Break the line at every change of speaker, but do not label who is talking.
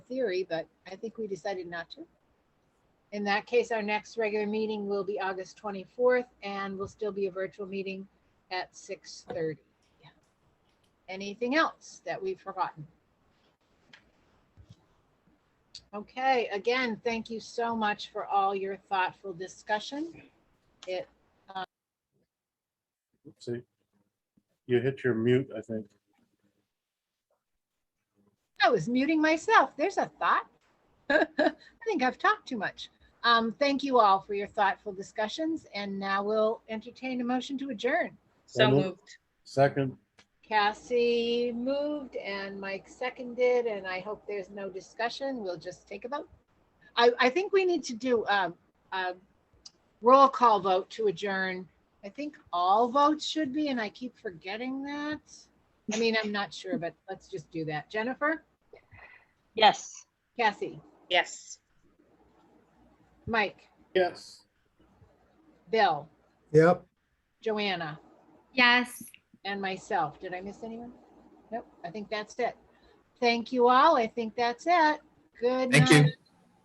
theory, but I think we decided not to. In that case, our next regular meeting will be August 24th and will still be a virtual meeting at 6:30. Anything else that we've forgotten? Okay, again, thank you so much for all your thoughtful discussion. It
See, you hit your mute, I think.
I was muting myself. There's a thought. I think I've talked too much. Um, thank you all for your thoughtful discussions, and now we'll entertain a motion to adjourn.
So
So
moved.
moved.
Second,
Cassie moved and Mike seconded, and I hope there's no discussion. We'll just take a vote. I, I think we need to do a, a roll call vote to adjourn. I think all votes should be, and I keep forgetting that. I mean, I'm not sure, but let's just do that. Jennifer,
Yes.
Cassie,
Yes.
Mike,
yes.
Bill,
Yep.
Joanna,
Yes.
and myself. Did I miss anyone? Nope, I think that's it. Thank you all. I think that's it. Good
Thank you.
night.